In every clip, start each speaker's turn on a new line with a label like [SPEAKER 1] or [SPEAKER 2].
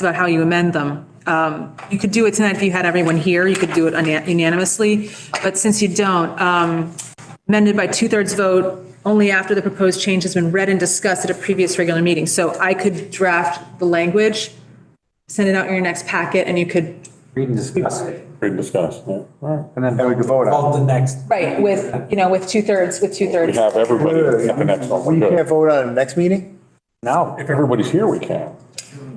[SPEAKER 1] about how you amend them. Um, You could do it tonight if you had everyone here, you could do it unan- unanimously, but since you don't, um, amended by two-thirds vote only after the proposed change has been read and discussed at a previous regular meeting. So I could draft the language, send it out in your next packet, and you could,
[SPEAKER 2] Read and discuss it.
[SPEAKER 3] Great discussion, yeah. All
[SPEAKER 2] And then
[SPEAKER 4] Then we can vote on
[SPEAKER 2] call the next.
[SPEAKER 1] right, with, you know, with two-thirds, with
[SPEAKER 3] right. We
[SPEAKER 1] two-thirds.
[SPEAKER 3] have everybody at the next
[SPEAKER 4] it.
[SPEAKER 3] one.
[SPEAKER 4] We
[SPEAKER 3] We're
[SPEAKER 4] can't
[SPEAKER 3] good.
[SPEAKER 4] vote on it next meeting?
[SPEAKER 2] No,
[SPEAKER 3] If everybody's here, we can.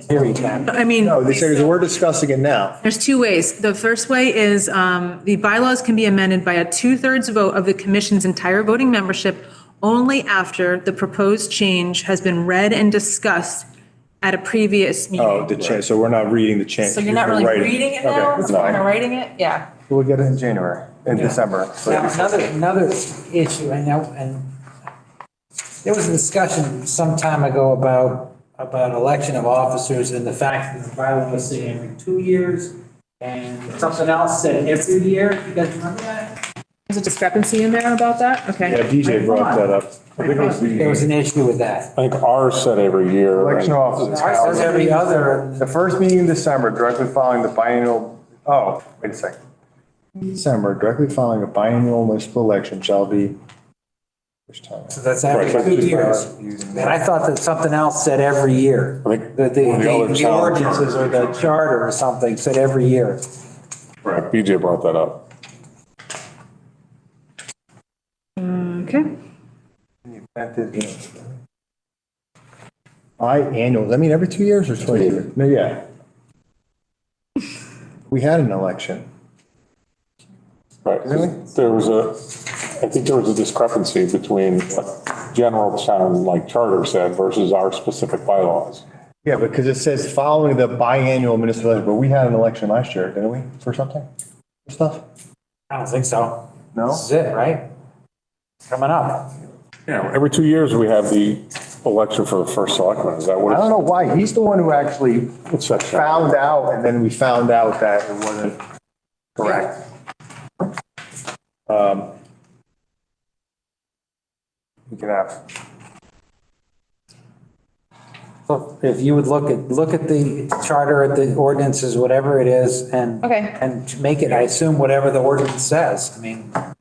[SPEAKER 2] here we can.
[SPEAKER 1] I mean.
[SPEAKER 4] No, they said, we're discussing it now.
[SPEAKER 1] There's two ways. The first way is um, the bylaws can be amended by a two-thirds vote of the commission's entire voting membership only after the proposed change has been read and discussed at a previous
[SPEAKER 4] Oh,
[SPEAKER 1] meeting.
[SPEAKER 4] the change, so we're not reading the change.
[SPEAKER 1] So you're not really
[SPEAKER 4] writing.
[SPEAKER 1] reading it
[SPEAKER 4] Okay.
[SPEAKER 1] now, it's
[SPEAKER 3] No.
[SPEAKER 1] kind of writing it, yeah.
[SPEAKER 4] We'll get it in January, in December.
[SPEAKER 2] Now, another, another issue, I know, and there was a discussion some time ago about, about election of officers and the fact that the bylaw was saying every two years and something else said every year. You guys remember that?
[SPEAKER 1] There's a discrepancy in there about that? Okay.
[SPEAKER 4] DJ brought that up.
[SPEAKER 3] I think it was
[SPEAKER 2] There was
[SPEAKER 3] the-
[SPEAKER 2] an issue with that.
[SPEAKER 3] I think ours said every year. and-
[SPEAKER 4] Election officers.
[SPEAKER 2] Ours says every other,
[SPEAKER 4] The first meeting in December, directly following the biennial, oh, wait a second. December, directly following a biennial municipal election shall be. which time?
[SPEAKER 2] so that's every two years. And I thought that something else said every year.
[SPEAKER 3] I think
[SPEAKER 2] The, the,
[SPEAKER 3] one of the other
[SPEAKER 2] the
[SPEAKER 3] charter-
[SPEAKER 2] ordinances or the charter or something said every year.
[SPEAKER 3] Right, BJ brought that up.
[SPEAKER 1] Okay.
[SPEAKER 4] Biannual, I mean, every two years or twice a year? No, yeah. We had an election.
[SPEAKER 3] Right.
[SPEAKER 4] Really?
[SPEAKER 3] There was a, I think there was a discrepancy between what general town, like charter said, versus our specific bylaws.
[SPEAKER 4] Yeah, because it says following the biannual municipal election, but we had an election last year, didn't we, for something? For Stuff?
[SPEAKER 2] I don't think so.
[SPEAKER 4] No?
[SPEAKER 2] This is it, right? Coming up.
[SPEAKER 3] Yeah, every two years, we have the election for the first selectman. Is that
[SPEAKER 4] I don't
[SPEAKER 3] what
[SPEAKER 4] know why. He's the one who actually
[SPEAKER 3] it's? It's that.
[SPEAKER 4] found out and then we found out that it wasn't correct. Um, We can have,
[SPEAKER 2] So If you would look at, look at the charter, at the ordinances, whatever it is, and.
[SPEAKER 1] Okay.
[SPEAKER 2] And to make it, I assume, whatever the ordinance says. I mean, you gotta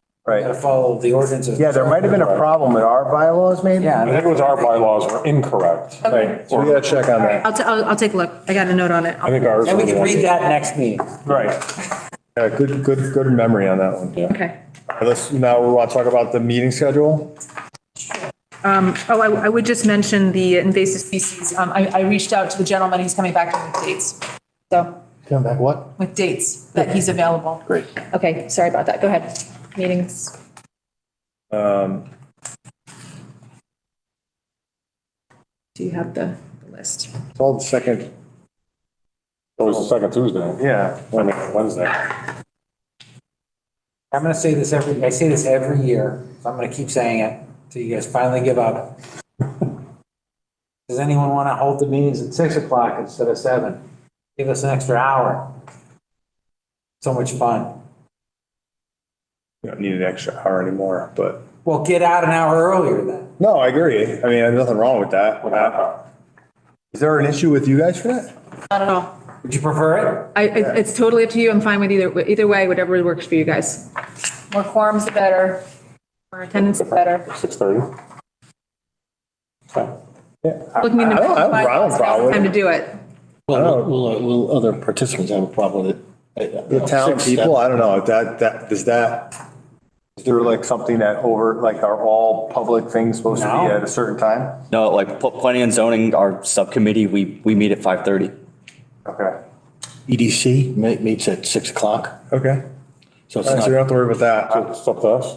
[SPEAKER 4] right.
[SPEAKER 2] follow the ordinances.
[SPEAKER 4] Yeah, there might have been a problem in our bylaws maybe.
[SPEAKER 3] I
[SPEAKER 2] Yeah,
[SPEAKER 3] think it was our bylaws were incorrect.
[SPEAKER 4] Right, so we gotta check on that.
[SPEAKER 1] I'll, ta- I'll I'll take a look. I got a note on it.
[SPEAKER 3] I think ours.
[SPEAKER 2] and we
[SPEAKER 3] were the
[SPEAKER 2] can
[SPEAKER 3] ones-
[SPEAKER 2] read that next meeting.
[SPEAKER 4] Right. Yeah, good, good, good memory on that one.
[SPEAKER 1] Okay.
[SPEAKER 4] All right, Let's, now we want to talk about the meeting schedule.
[SPEAKER 1] Oh, I, I would just mention the invasive species. Um, I, I reached out to the gentleman, he's coming back with dates. So,
[SPEAKER 4] Come back, what?
[SPEAKER 1] with dates that he's available.
[SPEAKER 4] Great.
[SPEAKER 1] Okay, sorry about that. Go ahead. Meetings. Do you have the the list?
[SPEAKER 4] It's all the second,
[SPEAKER 3] It was the second Tuesday.
[SPEAKER 4] yeah.
[SPEAKER 3] I mean, Wednesday.
[SPEAKER 2] I'm gonna say this every, I say this every year, so I'm gonna keep saying it till you guys finally give up. Does anyone wanna hold the meetings at six o'clock instead of seven? Give us an extra hour. So much fun.
[SPEAKER 4] You don't need an extra hour anymore, but.
[SPEAKER 2] Well, get out an hour earlier then.
[SPEAKER 4] No, I agree. I mean, there's nothing wrong with that. Is there an issue with you guys for that?
[SPEAKER 1] Not at all.
[SPEAKER 2] Would you prefer it?
[SPEAKER 1] I, I- it's totally up to you. I'm fine with either, either way, whatever works for you guys. More quorums, the better. More attendance, the better.
[SPEAKER 3] Six thirty. Okay.
[SPEAKER 1] Looking into
[SPEAKER 4] I don't- I don't- I don't have a problem with it.
[SPEAKER 1] Time to do it.
[SPEAKER 4] Oh.
[SPEAKER 5] Well, will, uh, will other participants have a problem with it?
[SPEAKER 4] The town people, I don't know, that, that, is that, is there like something that over, like are all public things supposed to
[SPEAKER 2] No.
[SPEAKER 4] be at a certain time?
[SPEAKER 6] No, like pl- planning and zoning, our subcommittee, we, we meet at 5:30.
[SPEAKER 4] Okay.
[SPEAKER 5] EDC E ma- meets at six o'clock,
[SPEAKER 4] Okay.
[SPEAKER 5] so it's
[SPEAKER 4] All right, so you don't
[SPEAKER 5] not,
[SPEAKER 4] have to worry about that.
[SPEAKER 3] So It's up to us.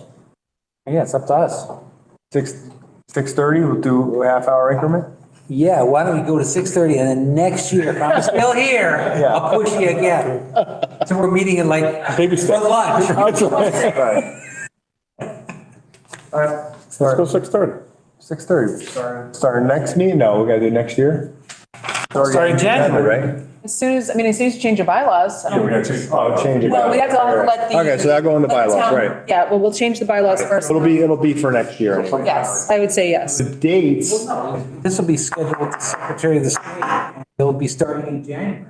[SPEAKER 2] Yeah, it's up to us.
[SPEAKER 4] Six, six thirty, we'll do a half hour increment?
[SPEAKER 2] Yeah, why don't we go to six thirty and then next year, if I'm still here, I'll push you again. So we're meeting at like,
[SPEAKER 3] Baby
[SPEAKER 2] for
[SPEAKER 3] steps.
[SPEAKER 2] lunch.
[SPEAKER 4] Right. All right,
[SPEAKER 3] Let's go
[SPEAKER 4] start,
[SPEAKER 3] six thirty.
[SPEAKER 4] six thirty. Start our next meeting? No, we gotta do next year?
[SPEAKER 2] Start in January.
[SPEAKER 4] Right?
[SPEAKER 1] As soon as, I mean, as soon as you change your bylaws. I don't-
[SPEAKER 4] Oh, change it.
[SPEAKER 1] Well, we have to all have to let the.
[SPEAKER 4] Okay, so that'll go in the
[SPEAKER 1] let
[SPEAKER 4] bylaws,
[SPEAKER 1] town-
[SPEAKER 4] right.
[SPEAKER 1] Yeah, well, we'll change the bylaws first.
[SPEAKER 4] It'll be, it'll be for next year. anyway.
[SPEAKER 1] Yes, I would say yes.
[SPEAKER 4] The dates,
[SPEAKER 2] This will be scheduled with the Secretary of the State. They'll be starting in January.